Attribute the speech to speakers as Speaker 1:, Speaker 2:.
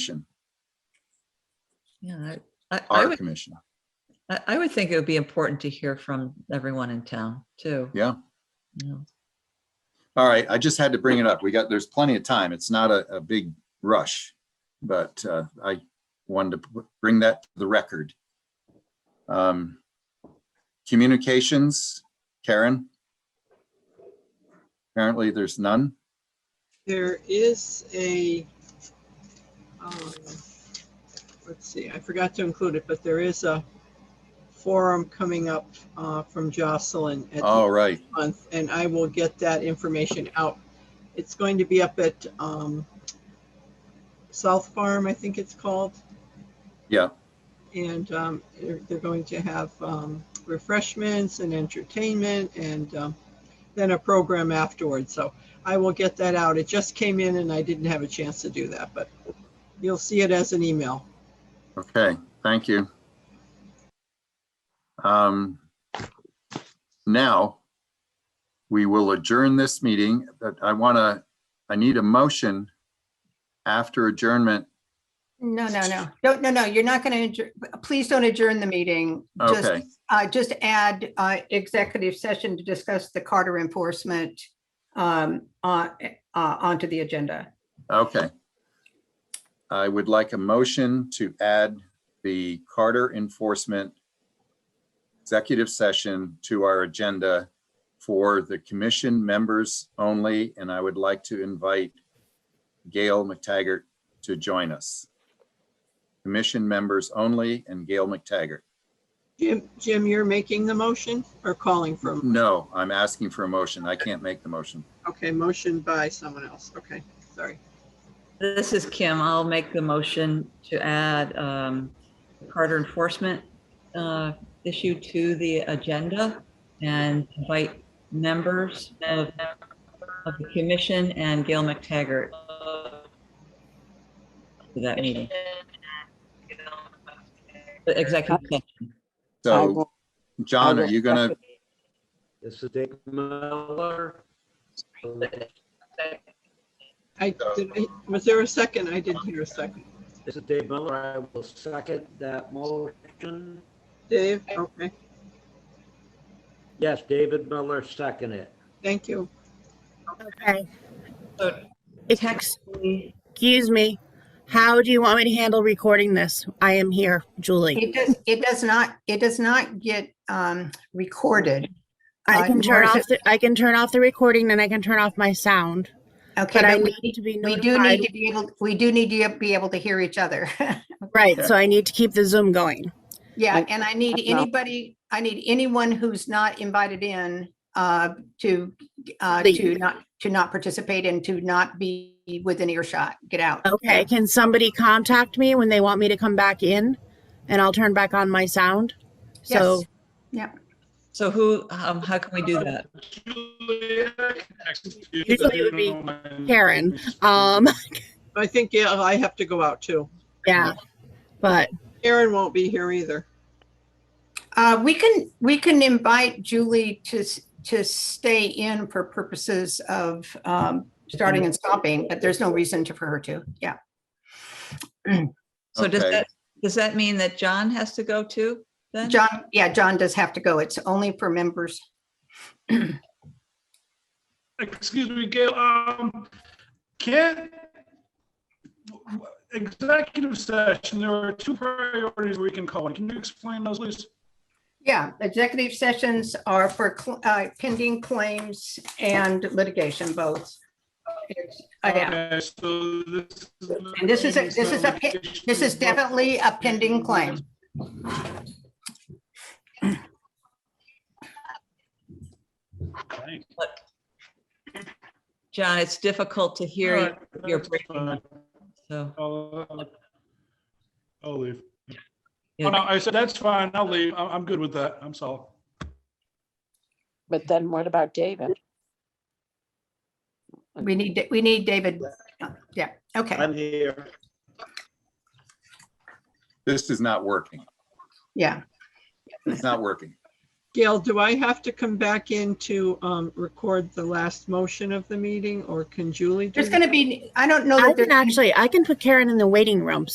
Speaker 1: Yeah, I, I- I
Speaker 2: our
Speaker 1: would,
Speaker 2: commission.
Speaker 1: I, I would think it would be important to hear from everyone in town too.
Speaker 2: Yeah.
Speaker 1: Yeah.
Speaker 2: All right, I just had to bring it up. We got, there's plenty of time. It's not a, a big rush, but uh, I wanted to p- bring that to the record. Um, Communications, Karen? Apparently, there's none.
Speaker 3: There is a, um, let's see, I forgot to include it, but there is a forum coming up uh, from Jocelyn at the
Speaker 2: All right,
Speaker 3: month, and I will get that information out. It's going to be up at um, South Farm, I think it's called.
Speaker 2: Yeah.
Speaker 3: And um, they're they're going to have um, refreshments and entertainment and um, then a program afterwards. So I will get that out. It just came in and I didn't have a chance to do that, but you'll see it as an email.
Speaker 2: okay, thank you. Um, Now, we will adjourn this meeting, but I want to, I need a motion after adjournment
Speaker 4: No, no, no, don't, no, no, you're not going to, please don't adjourn the meeting. Just,
Speaker 2: Okay.
Speaker 4: Uh, just add, uh, executive session to discuss the Carter enforcement, um, on, uh, onto the agenda.
Speaker 2: Okay. I would like a motion to add the Carter Enforcement Executive Session to our agenda for the commission members only, and I would like to invite Gail McTaggart to join us. Commission members only and Gail McTaggart.
Speaker 3: Jim, Jim, you're making the motion or calling from?
Speaker 2: No, I'm asking for a motion. I can't make the motion.
Speaker 3: Okay, motion by someone else. Okay, sorry.
Speaker 1: This is Kim. I'll make the motion to add um, Carter enforcement uh, issue to the agenda and invite members of, of the commission and Gail McTaggart to that meeting. The executive session.
Speaker 5: I
Speaker 2: So,
Speaker 5: will-
Speaker 2: John,
Speaker 5: I
Speaker 2: are
Speaker 5: will
Speaker 2: you gonna,
Speaker 6: This is Dave Miller.
Speaker 3: I, did I- was there a second? I didn't hear a second.
Speaker 6: This is Dave Miller. I will second that motion.
Speaker 3: Dave, okay,
Speaker 6: Yes, David Miller, second it.
Speaker 3: thank you.
Speaker 5: Okay.
Speaker 1: So-
Speaker 5: Excuse me. How do you want me to handle recording this? I am here, Julie.
Speaker 4: It does, it does not, it does not get, um, recorded.
Speaker 5: I
Speaker 4: Uh,
Speaker 5: can turn
Speaker 4: nor is
Speaker 5: off,
Speaker 4: it-
Speaker 5: the I can turn off the recording and I can turn off my sound,
Speaker 4: Okay,
Speaker 5: but I
Speaker 4: but
Speaker 5: need
Speaker 4: we,
Speaker 5: to be
Speaker 4: we do need
Speaker 5: notified.
Speaker 4: to be able, we do need to be able to hear each other.
Speaker 5: Right, so I need to keep the Zoom going.
Speaker 4: Yeah,
Speaker 5: Like,
Speaker 4: and I need
Speaker 5: know.
Speaker 4: anybody, I need anyone who's not invited in uh to, uh to
Speaker 5: Leave.
Speaker 4: not, to not participate and to not be within earshot, get out.
Speaker 5: Okay, can somebody contact me when they want me to come back in? And I'll turn back on my sound? So,
Speaker 4: Yes.
Speaker 1: So who, um, how can we do that?
Speaker 5: Usually it would be Karen. um,
Speaker 3: I think, yeah, I have to go out too.
Speaker 5: yeah, but
Speaker 3: Aaron won't be here either.
Speaker 4: Uh, we can, we can invite Julie to, s- to stay in for purposes of um starting and stopping, but there's no reason to for her to, yeah.
Speaker 1: So does
Speaker 2: Okay.
Speaker 1: that, does that mean that John has to go too? then?
Speaker 4: John, yeah, John does have to go. It's only for members.
Speaker 7: Excuse me, Gail, um, can't, w- w- executive session, there are two priorities we can call on. Can you explain those, please?
Speaker 4: Yeah, executive sessions are for cl- uh, pending claims and litigation both. It's- uh, yeah,
Speaker 7: Okay, so this.
Speaker 4: And this is a- this is a pi- This is definitely a pending claim.
Speaker 7: Okay,
Speaker 1: John, it's difficult to hear
Speaker 7: all
Speaker 1: you,
Speaker 7: right,
Speaker 1: you're
Speaker 7: that's
Speaker 1: breaking
Speaker 7: fine.
Speaker 1: so.
Speaker 7: I'll uh, I'll leave.
Speaker 1: yeah.
Speaker 7: Oh, no, I said, that's fine, I'll leave. I'm, I'm good with that. I'm solid.
Speaker 8: But then what about David?
Speaker 4: We need, we need David. Yeah, okay,
Speaker 6: I'm here.
Speaker 2: this is not working.
Speaker 4: yeah.
Speaker 2: It's not working.
Speaker 3: Gail, do I have to come back in to um, record the last motion of the meeting or can Julie do
Speaker 4: There's
Speaker 3: that?
Speaker 4: going to be, I don't know. that
Speaker 5: I
Speaker 4: Oh, there's
Speaker 5: can actually, I can put Karen in the waiting room